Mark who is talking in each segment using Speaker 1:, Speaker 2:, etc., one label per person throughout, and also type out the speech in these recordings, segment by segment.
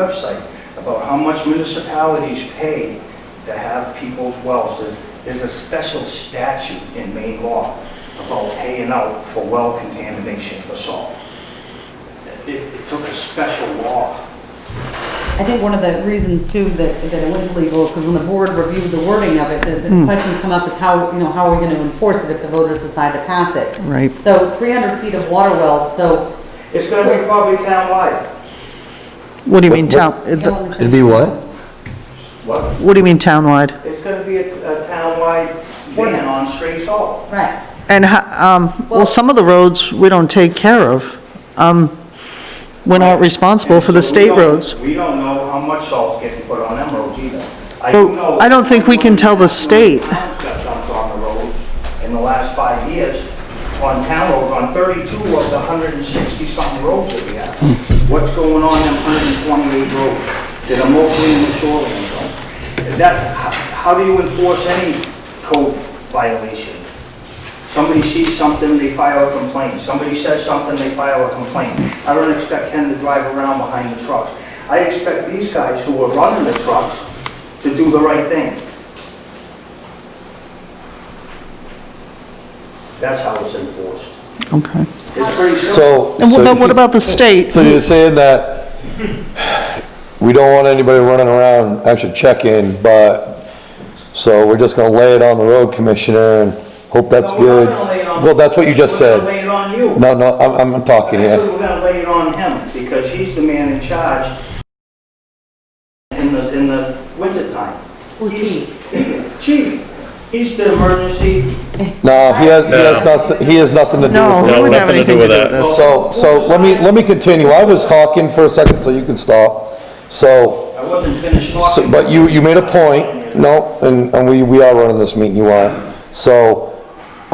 Speaker 1: website about how much municipalities pay to have people's wells. There's, there's a special statute in Maine law about paying out for well contamination for salt. It, it took a special law.
Speaker 2: I think one of the reasons too that, that it went to legal is because when the board reviewed the wording of it, the, the questions come up is how, you know, how are we gonna enforce it if the voters decide to pass it?
Speaker 3: Right.
Speaker 2: So three hundred feet of water wells, so.
Speaker 1: It's gonna be probably townwide.
Speaker 3: What do you mean town,
Speaker 4: It'd be what?
Speaker 1: What?
Speaker 3: what do you mean townwide?
Speaker 1: It's gonna be a, a townwide ban
Speaker 2: Ordinance.
Speaker 1: on straight salt.
Speaker 2: Right,
Speaker 3: And, ho- um, well,
Speaker 2: Well-
Speaker 3: some of the roads we don't take care of. Um, we're not responsible for the
Speaker 1: And so we
Speaker 3: state
Speaker 1: don't-
Speaker 3: roads.
Speaker 1: We don't know how much salt's getting put on them roads either. I
Speaker 3: Well,
Speaker 1: do know-
Speaker 3: I don't think we can tell the state.
Speaker 1: Towns got dumped on the roads in the last five years, on town roads, on 32 of the 160 something roads that we have. What's going on in 128 roads that are mostly in the shoreline zone? That, how how do you enforce any code violation? Somebody sees something, they file a complaint. Somebody says something, they file a complaint. I don't expect him to drive around behind the trucks. I expect these guys who are running the trucks to do the right thing. That's how it's enforced.
Speaker 3: Okay.
Speaker 1: It's pretty simple.
Speaker 4: So.
Speaker 3: And what
Speaker 4: so
Speaker 3: about, what
Speaker 4: you-
Speaker 3: about the state?
Speaker 4: So you're saying that we don't want anybody running around, actually checking, but, so we're just gonna lay it on the road commissioner and hope that's
Speaker 1: No, we're
Speaker 4: good?
Speaker 1: not gonna lay it on-
Speaker 4: Well, that's what you just
Speaker 1: We're
Speaker 4: said.
Speaker 1: gonna lay it on you.
Speaker 4: No, no, I'm, I'm talking
Speaker 1: Actually,
Speaker 4: here.
Speaker 1: we're gonna lay it on him, because he's the man in charge in the, in the wintertime.
Speaker 2: who's he?
Speaker 1: Chief, he's the emergency
Speaker 4: No, he has, he has nothing, he has nothing to do
Speaker 3: No,
Speaker 4: with
Speaker 3: we
Speaker 4: it.
Speaker 3: wouldn't have
Speaker 5: nothing to
Speaker 3: anything to do
Speaker 5: do
Speaker 3: with
Speaker 5: with that.
Speaker 3: this.
Speaker 4: So, so let me, let me continue. I was talking for a second, so you can stop. So,
Speaker 1: I wasn't finished
Speaker 4: So,
Speaker 1: talking.
Speaker 4: but you, you made a point, no, and, and we, we are running this meeting, you are. So,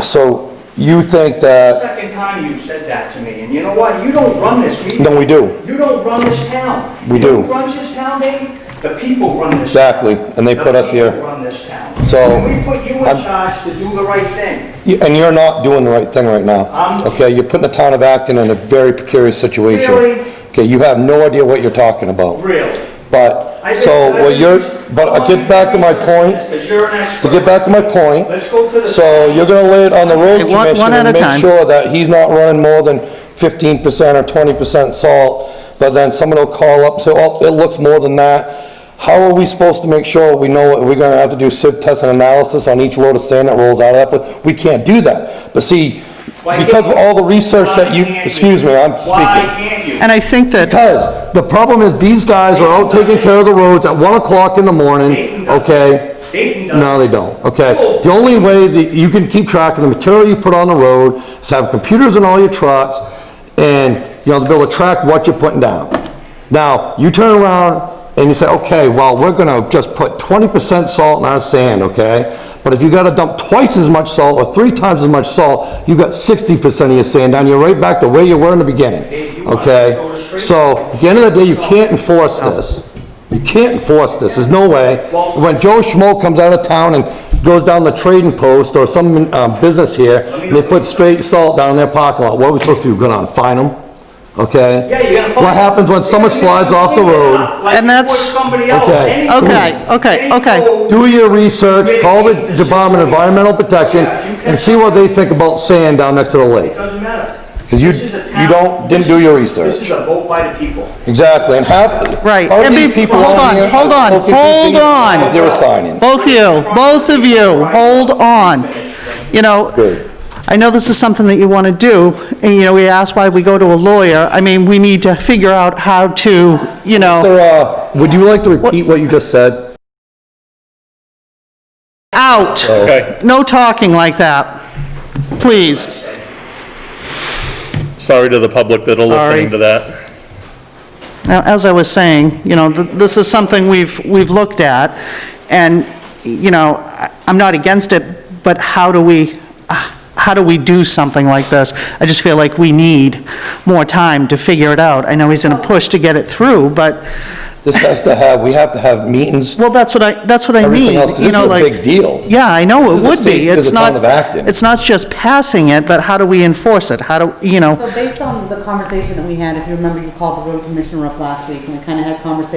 Speaker 4: so you think that,
Speaker 1: Second time you said that to me, and you know what? You don't run this meeting.
Speaker 4: no, we do,
Speaker 1: You don't run this town.
Speaker 4: We
Speaker 1: You know
Speaker 4: do.
Speaker 1: who runs this town, Dave? The people run this town.
Speaker 4: exactly, and they put us
Speaker 1: The people
Speaker 4: here.
Speaker 1: run this town.
Speaker 4: So,
Speaker 1: And we put you in
Speaker 4: I'm-
Speaker 1: charge to do the right thing.
Speaker 4: You- And you're not doing the right thing right now,
Speaker 1: I'm-
Speaker 4: okay? You're putting the town of Acton in a very precarious situation.
Speaker 1: Really?
Speaker 4: Okay, you have no idea what you're talking about,
Speaker 1: Really.
Speaker 4: but,
Speaker 1: I think-
Speaker 4: so,
Speaker 1: I
Speaker 4: well,
Speaker 1: think
Speaker 4: you're,
Speaker 1: you-
Speaker 4: but I get back to my point,
Speaker 1: Because you're an expert.
Speaker 4: to get back to my point,
Speaker 1: Let's go to the.
Speaker 4: So you're gonna lay it on the road
Speaker 3: Okay, one- one
Speaker 4: commissioner
Speaker 3: at
Speaker 4: and
Speaker 3: a
Speaker 4: make
Speaker 3: time.
Speaker 4: sure that he's not running more than fifteen percent or twenty percent salt, but then someone will call up, and say, oh, it looks more than that. How are we supposed to make sure we know, what- we're gonna have to do sieve test and analysis on each load of sand that rolls out of that? We can't do that, but see,
Speaker 1: Why
Speaker 4: because of
Speaker 1: can't-
Speaker 4: all the research that you,
Speaker 1: Why can't
Speaker 4: excuse me, I'm
Speaker 1: Why
Speaker 4: speaking.
Speaker 1: can't you?
Speaker 3: And I think that,
Speaker 4: Because the problem is these guys are out taking care of the roads at one o'clock in the
Speaker 1: Dayton
Speaker 4: morning,
Speaker 1: does.
Speaker 4: okay?
Speaker 1: Dayton does.
Speaker 4: No, they don't, okay? The only way that you can keep track of the material you put on the road is have computers in all your trucks and, you know, to be able to track what you're putting down. Now, you turn around and you say, okay, well, we're gonna just put twenty percent salt in our sand, okay? But if you gotta dump twice as much salt or three times as much salt, you've got sixty percent of your sand down, you're right back to where you were in the beginning, okay? So, at the end of the day, you can't enforce this. You can't enforce this, there's no way. When Joe Schmo comes out of town and goes down the trading post or some, um, business here, and they put straight salt down in their parking lot, what are we supposed to do, go down and fine them? Okay?
Speaker 1: Yeah, you're gonna. fuck-
Speaker 4: What happens when someone
Speaker 1: You're gonna
Speaker 4: slides off the
Speaker 1: fuck it
Speaker 4: road?
Speaker 1: up, like
Speaker 3: And
Speaker 1: you would
Speaker 3: that's-
Speaker 1: Somebody else.
Speaker 4: Okay.
Speaker 1: Any-
Speaker 3: Okay, okay,
Speaker 1: any
Speaker 3: okay.
Speaker 1: code-
Speaker 4: Do your research, call the Department of Environmental Protection, and see what they think about sand down next to the lake.
Speaker 1: Doesn't matter.
Speaker 4: 'Cause you-
Speaker 1: This is a
Speaker 4: you
Speaker 1: town-
Speaker 4: don't- didn't do your research.
Speaker 1: This is a vote by the people.
Speaker 4: Exactly, and half,
Speaker 3: Right,
Speaker 4: part of
Speaker 3: and
Speaker 4: these
Speaker 3: be-
Speaker 4: people
Speaker 3: hold
Speaker 4: on
Speaker 3: on,
Speaker 4: here.
Speaker 3: hold on,
Speaker 4: are confused
Speaker 3: hold on.
Speaker 4: what They were signing.
Speaker 3: both you, both of you, hold on. You know,
Speaker 4: Good.
Speaker 3: I know this is something that you want to do, and, you know, we asked why we go to a lawyer. I mean, we need to figure out how to, you know,
Speaker 4: So, uh, would you like to repeat what you just said?
Speaker 3: out.
Speaker 5: Okay,
Speaker 3: No talking like that, please.
Speaker 5: sorry to the public that are
Speaker 3: Sorry.
Speaker 5: listening to that.
Speaker 3: Now, as I was saying, you know, th- this is something we've, we've looked at, and, you know, I- I'm not against it, but how do we, ah, how do we do something like this? I just feel like we need more time to figure it out. I know he's in a push to get it through, but
Speaker 4: This has to have, we have to have meetings.
Speaker 3: Well, that's what I, that's what I
Speaker 4: Everything
Speaker 3: mean,
Speaker 4: else, 'cause
Speaker 3: you
Speaker 4: this
Speaker 3: know,
Speaker 4: is a
Speaker 3: like.
Speaker 4: big deal.
Speaker 3: Yeah, I
Speaker 4: This
Speaker 3: know,
Speaker 4: is
Speaker 3: it
Speaker 4: the
Speaker 3: would
Speaker 4: safety
Speaker 3: be.
Speaker 4: of the
Speaker 3: It's
Speaker 4: town
Speaker 3: not,
Speaker 4: of Acton.
Speaker 3: it's not just passing it, but how do we enforce it? How do, you know?
Speaker 2: So based on the conversation that we had, if you remember, you called the road commissioner up last week, and we kind of had conversation